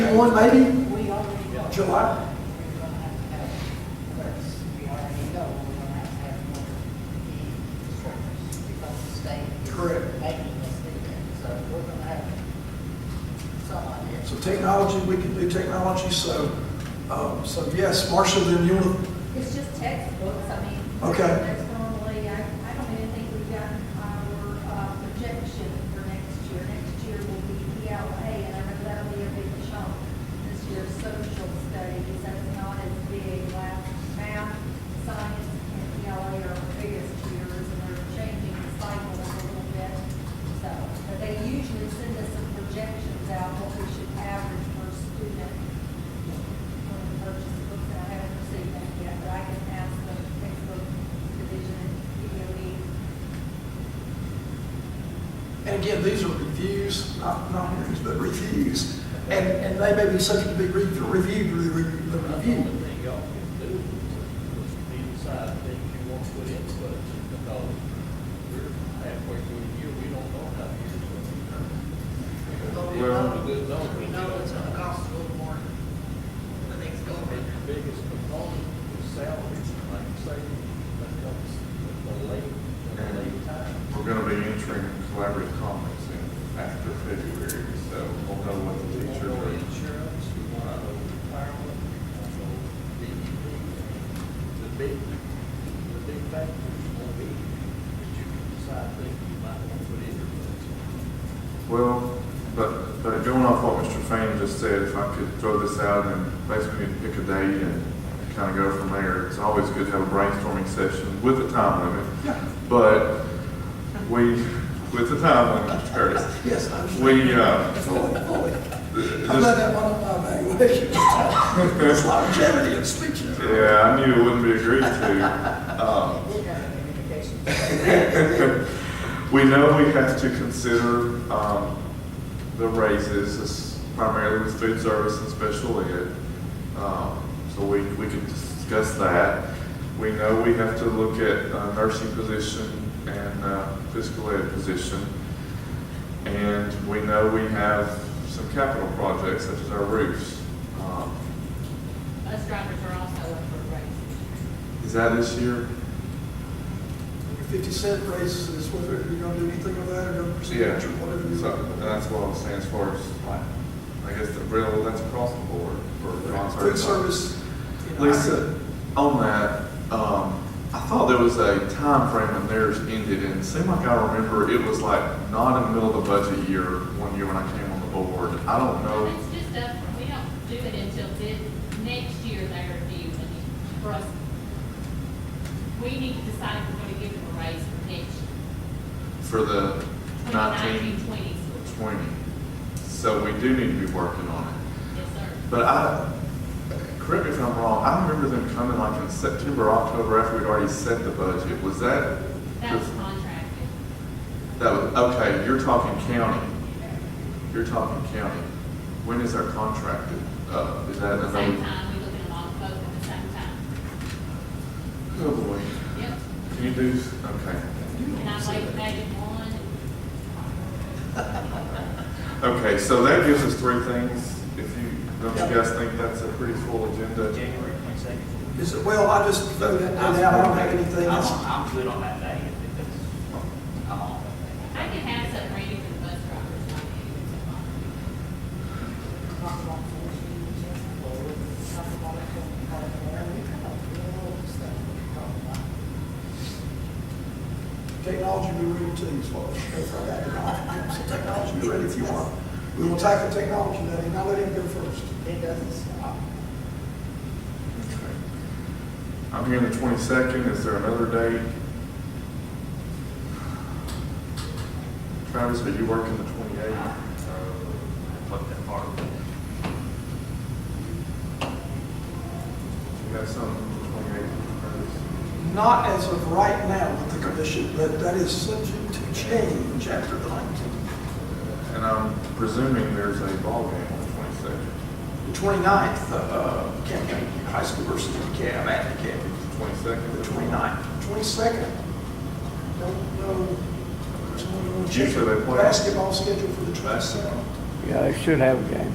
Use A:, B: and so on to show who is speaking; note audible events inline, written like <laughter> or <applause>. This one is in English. A: second one maybe,
B: We already know.
A: July?
B: We're gonna have to have it first. We already know we're gonna have to have one first because the state is
A: Correct.
B: making us do that. So we're gonna have someone here.
A: so technology, we can do technology, so, um, so yes, Marcia, then you want
C: It's just textbooks, I mean.
A: Okay.
C: That's normally, I, I don't even think we've gotten our uh, projection for next year. Next year will be ELA, and I know that'll be a big chunk. This year's social studies, that's not as big. Last math, science, and ELA are our biggest years, and they're changing the cycle a little bit. So, but they usually send us some projections out, what we should average per student when we purchase the books, and I haven't received that yet, but I can ask the textbook division at DOE.
A: And again, these are reviews, not, not hearings, but reviews. And, and they may be subject to be re- reviewed, re- re- the
D: That's the only
A: review.
D: thing y'all can do is be decide that you want to put in the budget because we're halfway through the year, we don't know how the year's going to
B: But
D: be.
B: we
D: We're
B: know-
D: on a good number.
B: We know it's gonna cost a little more the next
D: And
B: government.
D: the biggest component is salaries, like you say, that comes with the late, the late time.
E: We're gonna be entering collaborative comments in after February, so we'll know what the
D: We want to
E: teachers
D: know
E: are.
D: insurance, we want to know retirement, we want to know DEP, the big, the big factors will be that you can decide things you might want to put in your budget.
E: Well, but, but going off what Mr. Fain just said, if I could throw this out and basically pick a date and kind of go from there, it's always good to have a brainstorming session with a time limit.
A: Yeah,
E: But we, with the time limit, Mr. Curtis,
A: yes, I understand.
E: we, uh,
A: Fully, fully.
E: th-
A: I'm glad <laughs>
E: this-
A: that one on my evaluation. It's longevity and speeches.
E: yeah, I knew it wouldn't be agreed to. Um,
B: Did have communication.
E: We know we have to consider um, the raises, this primarily with food service and special ed. Um, So we, we can discuss that. We know we have to look at uh, nursing position and uh, physical ed position. And we know we have some capital projects such as our roofs. Um,
B: Us drivers are also up for raise.
E: Is that this year?
A: Fifty cent raises is whether you're gonna do anything with that or no percentage or whatever. you-
E: So that's what it stands for, is like, I guess the real, that's across the board for concert.
A: Food service. you know, I-
E: Lisa, on that, um, I thought there was a time frame when theirs ended, and it seemed like I remember it was like not in the middle of the budget year, one year when I came on the board. I don't know,
F: It's just up, we don't do it until this, next year they review it for us. We need to decide if we're gonna give them a raise for next
E: for the
F: year,
E: nineteen,
F: 2019, 20 school.
E: twenty. So we do need to be working on it.
F: Yes, sir.
E: But I, correct me if I'm wrong, I remember them coming like in September, October, after we'd already set the budget. Was that?
F: That was contracted.
E: That was, okay, you're talking county. You're talking county. When is our contracted? Uh, is that
F: At the same
E: another?
F: time, we look at them all both at the same time.
E: Oh, boy.
F: Yep.
E: Can you do, okay.
F: And I wait maybe one,
E: Okay, so that gives us three things. If you, don't you guys think that's a pretty full agenda?
G: January twenty-second.
A: Is it, well, I just throw that out, I don't have anything
G: I'm,
A: else.
G: I'm good on that day, if it's, I'm on that
F: I can have some ready for the bus drivers, not even tomorrow.
B: Not long for us, we need to just go with it. Not long for us, we call it whatever we come up with, all the stuff we talk about.
A: Technology, we ready to, as well. So technology, be ready if you want. We will tackle technology, Letty, now let him go first.
B: It doesn't stop.
E: Okay. I'm hearing the twenty-second, is there another date? Travis, are you working the twenty-eighth?
G: day. Look that far.
E: You got something the twenty-eighth, Travis?
A: Not as of right now with the commission, but that is subject to change after the nineteenth.
E: And I'm presuming there's a ball game on the twenty-second.
A: The twenty-ninth, uh, Camp County High School versus DeKalb, at DeKalb,
E: Twenty-second?
A: the twenty-ninth. Twenty-second, don't know. there's no-
E: Usually they play-
A: Basketball scheduled for the twenty-second.
H: Yeah, they should have a game.